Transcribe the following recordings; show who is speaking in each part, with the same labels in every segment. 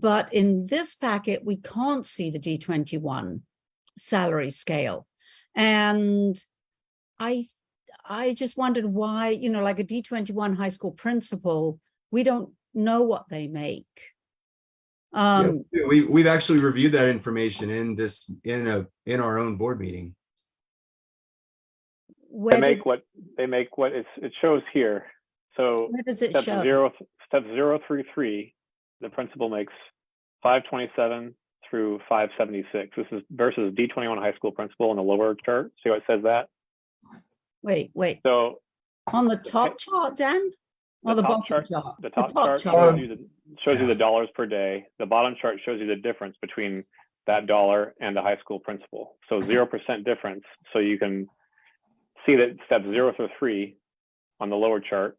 Speaker 1: But in this packet, we can't see the D21 salary scale. And I, I just wondered why, you know, like a D21 high school principal, we don't know what they make.
Speaker 2: Yeah,
Speaker 1: Um,
Speaker 2: We, we've actually reviewed that information in this, in a, in our own board meeting.
Speaker 1: where
Speaker 3: They
Speaker 1: did-
Speaker 3: make what, they make what, it's, it shows here. So
Speaker 1: where does it
Speaker 3: step
Speaker 1: show?
Speaker 3: zero, step zero through three, the principal makes five twenty-seven through five seventy-six. This is versus D twenty-one high school principal in the lower chart. See how it says that?
Speaker 1: Wait, wait,
Speaker 3: So
Speaker 1: on the top chart, Dan? Or
Speaker 3: The
Speaker 1: the
Speaker 3: top
Speaker 1: bottom
Speaker 3: chart-
Speaker 1: chart?
Speaker 3: the top chart Um, shows you the, shows you
Speaker 2: Yeah.
Speaker 3: the dollars per day. The bottom chart shows you the difference between that dollar and the high school principal. So zero percent difference. So you can see that step zero through three on the lower chart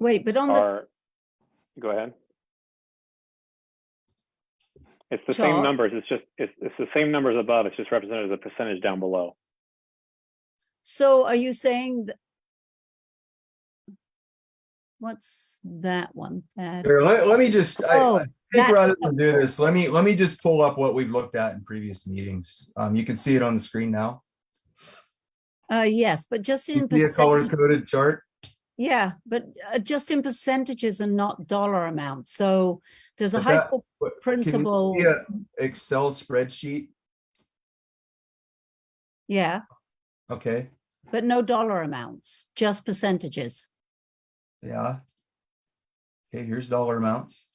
Speaker 1: Wait, but on the,
Speaker 3: are, go ahead. It's the same
Speaker 1: Charts.
Speaker 3: numbers, it's just, it's, it's the same numbers above, it's just represented as a percentage down below.
Speaker 1: so are you saying that? What's that one? there?
Speaker 2: Here, let, let me just, I,
Speaker 1: Oh,
Speaker 2: I think
Speaker 1: that's
Speaker 2: rather than do this, let me, let me just pull up what we've looked at in previous meetings. Um, you can see it on the screen now.
Speaker 1: uh, yes, but just in
Speaker 2: You See a color
Speaker 1: percentages,
Speaker 2: coded chart?
Speaker 1: yeah, but uh, just in percentages and not dollar amount. So does a
Speaker 2: But
Speaker 1: high
Speaker 2: that-
Speaker 1: school
Speaker 2: but can you
Speaker 1: principal,
Speaker 2: See a Excel spreadsheet?
Speaker 1: yeah,
Speaker 2: Okay,
Speaker 1: but no dollar amounts, just percentages.
Speaker 2: yeah. Okay, here's dollar amounts.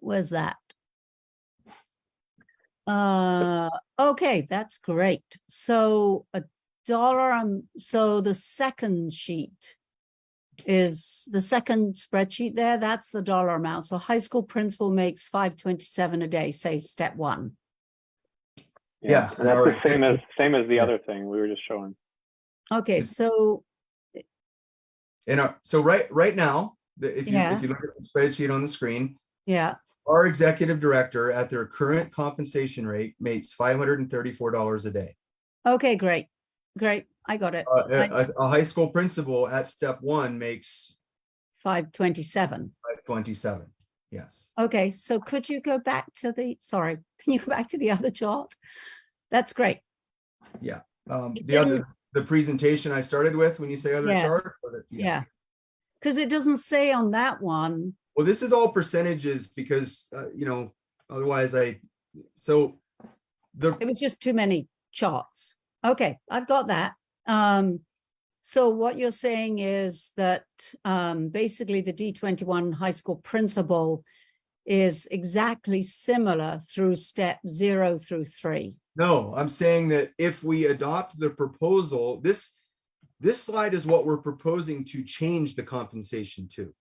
Speaker 1: Where's that? Uh, okay, that's great. So a dollar, um, so the second sheet is the second spreadsheet there, that's the dollar amount. So high school principal makes five twenty-seven a day, say step one.
Speaker 3: Yeah,
Speaker 2: Yeah,
Speaker 3: And that's the
Speaker 2: alright.
Speaker 3: same as, same as the
Speaker 2: Yeah.
Speaker 3: other thing we were just showing.
Speaker 1: Okay,
Speaker 2: Is-
Speaker 1: so,
Speaker 2: And uh, so right, right now, the- if you,
Speaker 1: Yeah.
Speaker 2: if you look at the spreadsheet on the screen,
Speaker 1: yeah,
Speaker 2: our executive director at their current compensation rate makes five hundred and thirty-four dollars a day.
Speaker 1: okay, great, great, I got it,
Speaker 2: Uh, A, a- a high school principal at step one makes
Speaker 1: five twenty-seven.
Speaker 2: twenty-seven, yes.
Speaker 1: Okay, so could you go back to the, sorry, can you go back to the other chart? That's great.
Speaker 2: Um,
Speaker 1: It
Speaker 2: the other, the presentation I started with, when you say other
Speaker 1: Yes.
Speaker 2: chart. or the-
Speaker 1: Yeah. Because it doesn't say on that one,
Speaker 2: Well, this is all percentages because, uh, you know, otherwise I, so the,
Speaker 1: it was just too many charts. Okay, I've got that. Um, so what you're saying is that, um, basically the D twenty-one high school principal is exactly similar through step zero through three.
Speaker 2: no, I'm saying that if we adopt the proposal, this, this slide is what we're proposing to change the compensation to.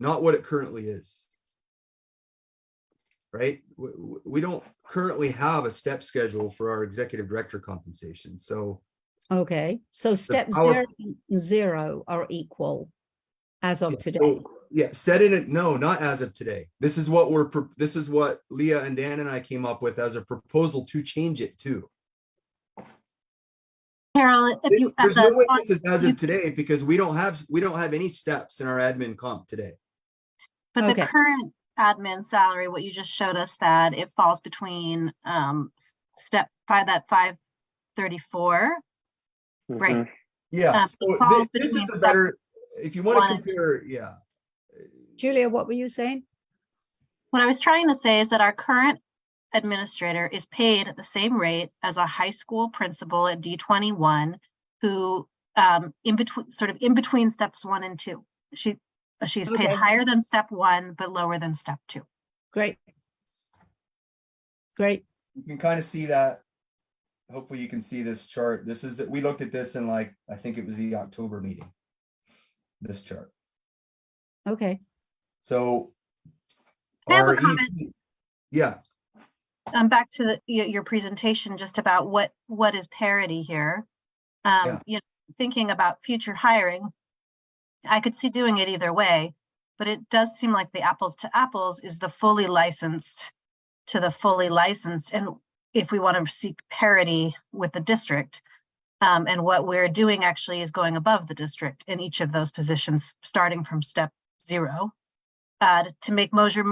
Speaker 2: Not what it currently is. Right? W- w- We, don't currently have a step schedule for our executive director compensation, so
Speaker 1: Okay, so step
Speaker 2: power-
Speaker 1: zero and zero are equal as of
Speaker 2: Yeah,
Speaker 1: today.
Speaker 2: yeah, set in it, no, not as of today. This is what we're, pro- this is what Leah and Dan and I came up with as a proposal to change it to.
Speaker 4: Carol, if you,
Speaker 2: There's
Speaker 4: as
Speaker 2: no
Speaker 4: a,
Speaker 2: way
Speaker 4: fun-
Speaker 2: this is as
Speaker 4: you-
Speaker 2: of today because we don't have, we don't have any steps in our admin comp today.
Speaker 4: but
Speaker 1: Okay.
Speaker 4: the current admin salary, what you just showed us that it falls between, um, s- step five, that five thirty-four. Right.
Speaker 3: Mhm.
Speaker 2: Yeah,
Speaker 4: Uh,
Speaker 2: so
Speaker 4: it
Speaker 2: thi-
Speaker 4: falls
Speaker 2: this
Speaker 4: between
Speaker 2: is a
Speaker 4: step
Speaker 2: better, if you want to
Speaker 4: one and two.
Speaker 2: compare, yeah.
Speaker 1: Julia, what were you saying?
Speaker 4: What I was trying to say is that our current administrator is paid at the same rate as a high school principal at D twenty-one who, um, in between, sort of in between steps one and two. She, she's paid
Speaker 1: Okay.
Speaker 4: higher than step one, but lower than step two.
Speaker 1: Great. Great,
Speaker 2: you can kind of see that. Hopefully you can see this chart. This is, we looked at this in like, I think it was the October meeting. This chart.
Speaker 1: okay,
Speaker 2: So.
Speaker 4: I have a
Speaker 2: our EP
Speaker 4: comment.
Speaker 2: Yeah,
Speaker 4: um, back to the, your, your presentation, just about what, what is parity here?
Speaker 2: Yeah.
Speaker 4: Um, you know, thinking about future hiring, I could see doing it either way, but it does seem like the apples to apples is the fully licensed to the fully licensed, and if we want to seek parity with the district, um, and what we're doing actually is going above the district in each of those positions, starting from step zero. uh, to make Mosier